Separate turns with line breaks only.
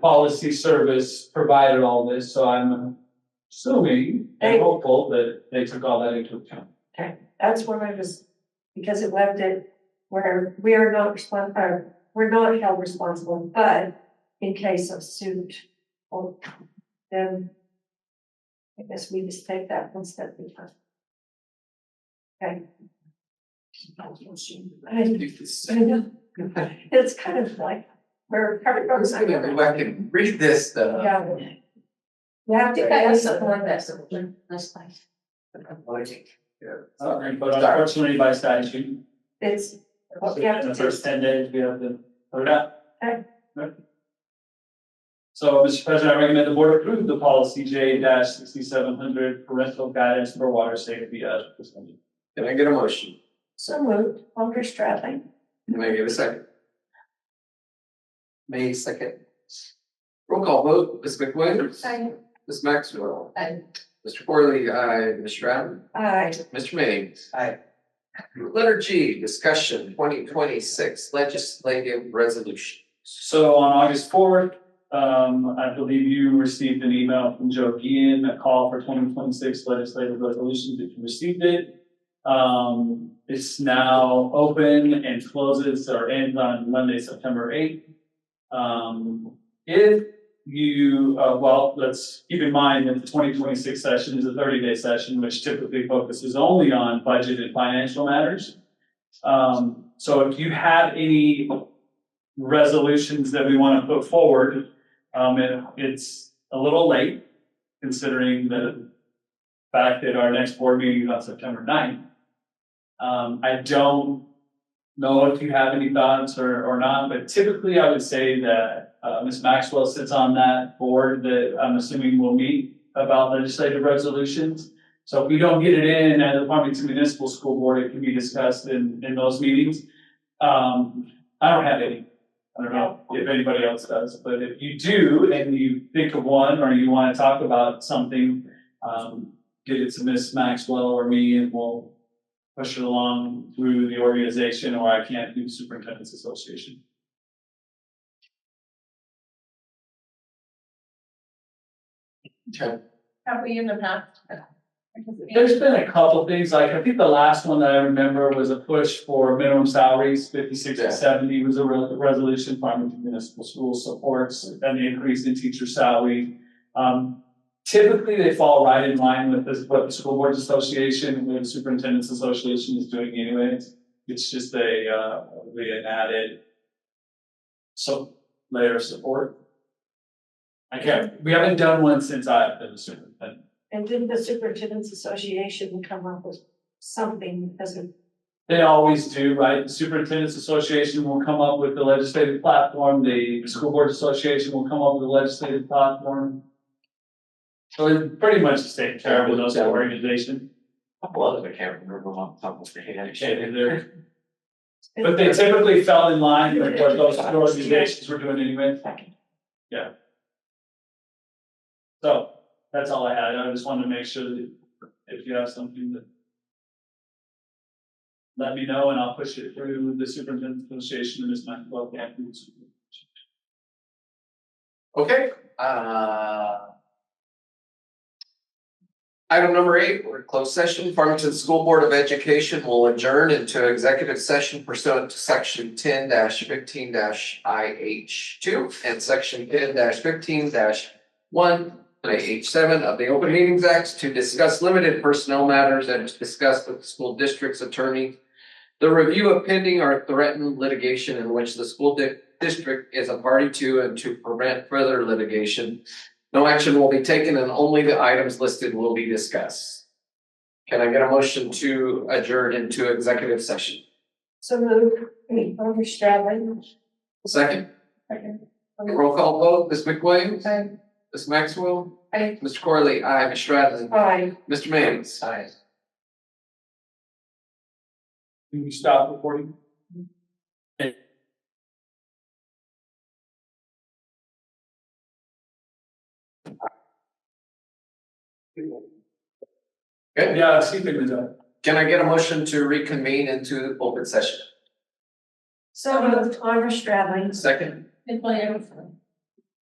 policy service provided all this, so I'm assuming and
Hey.
hopeful that they took all that into account.
That's where I was, because it left it where we are not respon uh, we're not held responsible, but in case of suit or then I guess we just take that one step at a time. Okay. I, I know, it's kind of like, we're covered from.
I'm just gonna go back and read this stuff.
Yeah. You have to pay someone that's.
Uh, But unfortunately, by statute,
It's, Well, yeah.
in the first ten days, we have to put it out.
Okay.
Right. So, Mr. President, I recommend the board approve the policy J sixty-seven hundred parental guidance for water safety as presented.
Can I get a motion?
so moved, Alder Stradling,
Can I get a second? May second. Roll call vote, Ms. McWilliams. Ms. Maxwell.
Aye.
Mr. Corley, aye. Ms. Stratton.
aye.
Mr. Mannings. Aye. Letter G, discussion twenty twenty-six legislative resolution.
So on August fourth, um, I believe you received an email from Joe Gian, a call for twenty twenty-six legislative resolutions, if you received it. Um, it's now open and closes or ends on Monday, September eighth. Um, if you, uh, well, let's keep in mind that the twenty twenty-six session is a thirty-day session, which typically focuses only on budget and financial matters. Um, so if you have any resolutions that we want to put forward. Um, it, it's a little late considering the fact that our next board meeting is on September 9th. Um, I don't know if you have any thoughts or, or not, but typically I would say that, uh, Ms. Maxwell sits on that board that I'm assuming will meet about legislative resolutions. So if we don't get it in at the Farmington Municipal School Board, it can be discussed in, in those meetings. Um, I don't have any. I don't know if anybody else does, but if you do and you think of one or you want to talk about something, um, get it to Miss Maxwell or me and we'll push it along through the organization or I can't do superintendent's association.
Okay.
Have we in the past?
There's been a couple things, like I think the last one that I remember was a push for minimum salaries, fifty-six
Yeah.
to seventy was a re- resolution Farmington Municipal Schools supports and the increase in teacher salary. Um, typically, they fall right in line with this, what the School Boards Association, what the Superintendent's Association is doing anyways. It's just a, uh, we had added some layer of support. I can't, we haven't done one since I've been the superintendent.
And didn't the superintendent's association come up with something as a,
They always do, right? The Superintendent's Association will come up with the legislative platform, the School Board Association will come up with the legislative platform. So it's pretty much the same care with those organizations,
Well, I can't remember off the top of my head.
Okay, they're- but they typically fell in line with what those organizations were doing anyway. So that's all I had. I just wanted to make sure that if you have something that let me know and I'll push it through the Superintendent's Association and Ms. Maxwell.
Okay, uh. Item number eight, we're in closed session. Farmington School Board of Education will adjourn into executive session pursuant to section ten fifteen I H two and section ten fifteen one I H seven of the Open Meetings Act to discuss limited personnel matters and to discuss with the school district's attorney the review of pending or threatened litigation in which the school di- district is a party to and to prevent further litigation. No action will be taken and only the items listed will be discussed. Can I get a motion to adjourn into executive session?
so moved, Alder Stradling?
Second,
Second.
roll call vote, Ms. McWilliams,
Aye.
Ms. Maxwell,
Aye.
Mr. Corley, aye, Ms. Stratton,
Aye.
Mr. Mannings. Aye.
Can you stop recording?
Okay,
Yeah, see if they can do it.
can I get a motion to reconvene into open session?
So moved, Alder Stradling?
Second,
Ms. Williams.